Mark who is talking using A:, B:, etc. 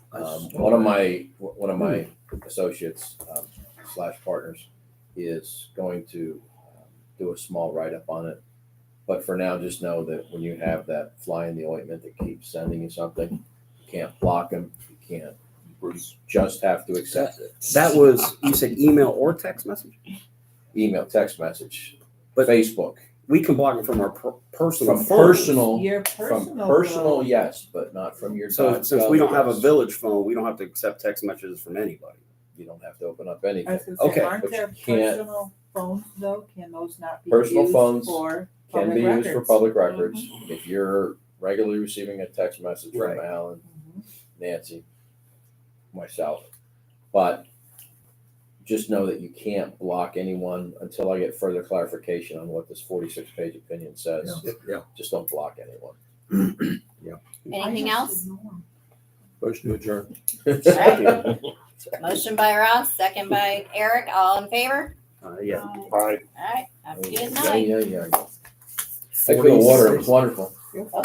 A: Um, one of my, one of my
B: Hmm.
A: associates um, slash partners is going to um, do a small write-up on it. But for now, just know that when you have that fly in the ointment that keeps sending you something, you can't block them, you can't, you just have to accept it.
B: That was you said email or text message.
A: Email, text message,
B: But-
A: Facebook,
B: We can block it from our per- personal
A: From
B: phones.
A: personal-
C: Your
A: from
C: personal.
A: personal,
C: vote.
A: yes, but not from your.
B: So
A: dot
B: since we don't
A: gov
B: have a
A: address.
B: village phone, we don't have to accept text messages from anybody.
A: You don't have to open up
C: I
A: anything.
C: was gonna
B: Okay,
C: say, aren't
A: but you
C: there
A: can't-
C: personal phones though? Can those not be
A: Personal phones
C: used for
A: can be
C: public
A: used for
C: records?
A: public records. If you're regularly receiving a text message from
B: Right.
A: Alan,
C: Mhm.
A: Nancy, myself, but just know that you can't block anyone until I get further clarification on what this forty-six page opinion says.
B: Yeah.
A: Just don't block anyone.
D: Anything
C: I have
D: else?
C: to ignore.
E: Motion to adjourn.
D: Second. Motion by Ross, second by Eric, all in favor?
B: Uh, yeah.
C: Um,
E: Aye.
D: All right, have a good
A: Yeah,
D: night. Oh,
A: yeah, yeah. That good water, it was wonderful.